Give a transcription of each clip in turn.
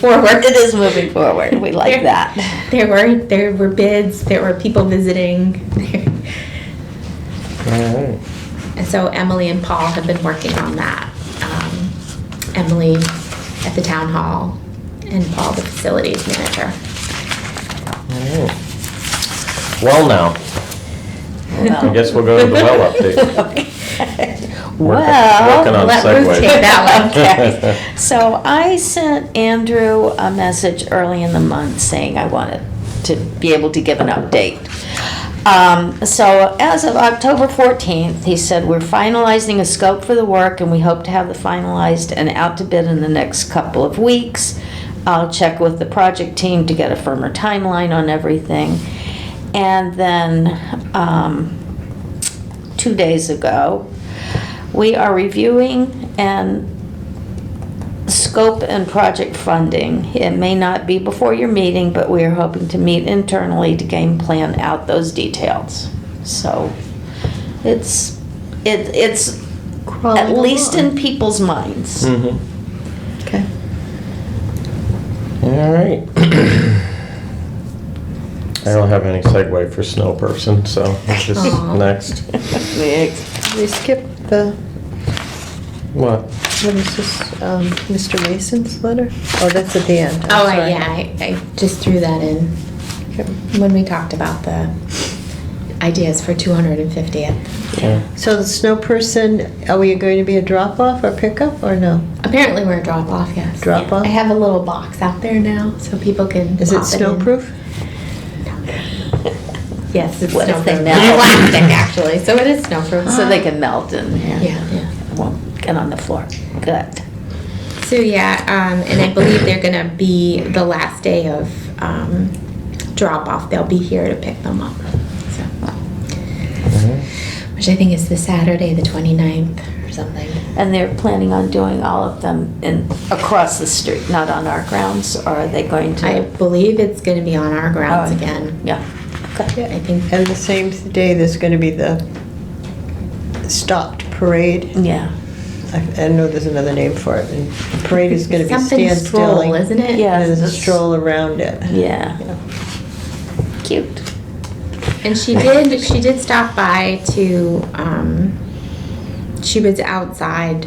forward. It is moving forward. We like There- that. There were, there were bids, there were people visiting. Alright. And so Emily and Paul have been working on that. Um, Emily at the town hall and Paul, the facilities manager. Well now, I guess we'll go to the well update. Well, working on let Ruth segues. take that one. Okay. So I sent Andrew a message early in the month saying I wanted to be able to give an update. Um, so as of October fourteenth, he said, we're finalizing a scope for the work and we hope to have the finalized and out to bid in the next couple of weeks. I'll check with the project team to get a firmer timeline on everything. And then, um, two days ago. We are reviewing and scope and project funding. It may not be before your meeting, but we are hoping to meet internally to game plan out those details. So it's, it, it's at least in people's minds. Mm-hmm. Okay. Alright. I don't have any segue for snow person, so just Aw. next. We skipped the, What? what is this, um, Mr. Mason's letter? Oh, that's at the end. I'm Oh, I- sorry. yeah, I, I just threw that in Okay. when we talked about the ideas for 250th. Yeah. So the snow person, are we going to be a drop-off or pickup or no? Apparently we're a drop off, yes. Drop off? I have a little box out there now so people can. Is it pop in. snowproof? Yes, it's What if they snowproof. melt? Plastic actually, so it is snowproof. So they can melt and, Yeah, yeah. won't get on the floor. Good. So yeah, um, and I believe they're gonna be the last day of um, drop off. They'll be here to pick them up. So, Mm-hmm. which I think is the Saturday, the 29th or something. And they're planning on doing all of them in, across the street, not on our grounds, or are they going to? I believe it's gonna be on our grounds Oh, again. Yeah. I think And the same day, there's going to be the stopped parade. Yeah. I I know there's another name for it. And the parade is going to be something stroll, standstilling. isn't it? Yeah. And there's a That's- stroll around it. Yeah. Cute. And she did. She did stop by to. Um, she was outside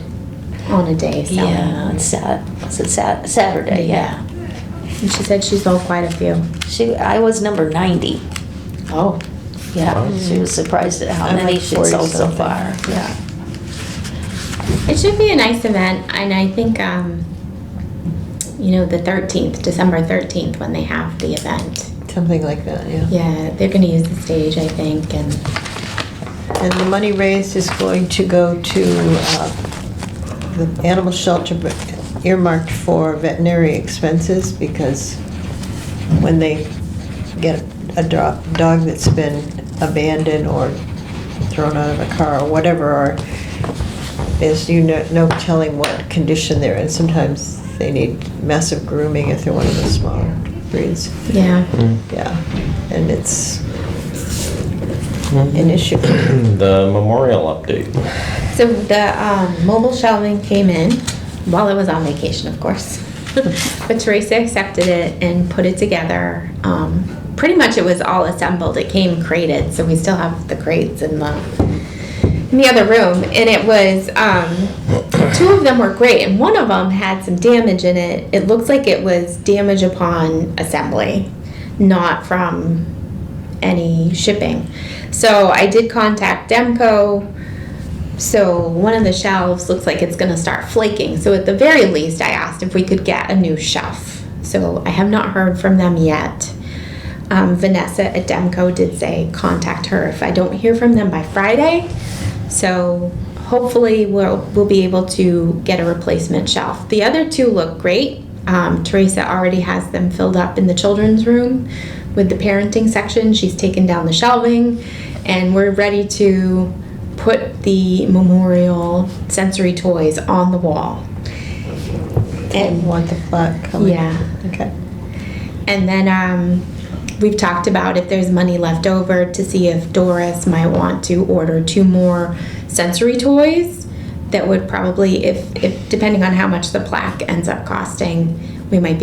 on a day. So. Yeah. It's sad. Was it sat- Saturday? Yeah. And she said she sold quite a few. She. I was number ninety. Oh. Yeah. Wow. She was surprised at how I'm many like she 40 sold so something. far. Yeah. It should be a nice event, and I think, um, you know, the 13th, December 13th, when they have the event. Something like that, yeah. Yeah, they're going to use the stage, I think, and And the money raised is going to go to uh, the animal shelter but earmarked for veterinary expenses because when they get a dro- dog that's been abandoned or thrown out of a car or whatever, or there's you know, no telling what condition they're in. Sometimes they need massive grooming if they're one of the smaller breeds. yeah. Mm-hmm. Yeah, and it's Mhm. an issue. The memorial update. So the um, mobile shelving came in while I was on vacation, of course. but Teresa accepted it and put it together. Um, pretty much it was all assembled. It came crated, so we still have the crates in the in the other room. And it was um, two of them were great, and one of them had some damage in it. It looks like it was damage upon assembly, not from any shipping. So I did contact Demco. So one of the shelves looks like it's going to start flaking. So at the very least, I asked if we could get a new shelf. So I have not heard from them yet. Um, Vanessa at Demco did say contact her if I don't hear from them by Friday. So hopefully we'll we'll be able to get a replacement shelf. The other two look great. Um, Teresa already has them filled up in the children's room with the parenting section. She's taken down the shelving, and we're ready to put the memorial sensory toys on the wall. And Want the plaque coming? Yeah. Okay. And then um, we've talked about if there's money left over to see if Doris might want to order two more sensory toys that would probably, if, if depending on how much the plaque ends up costing, we might be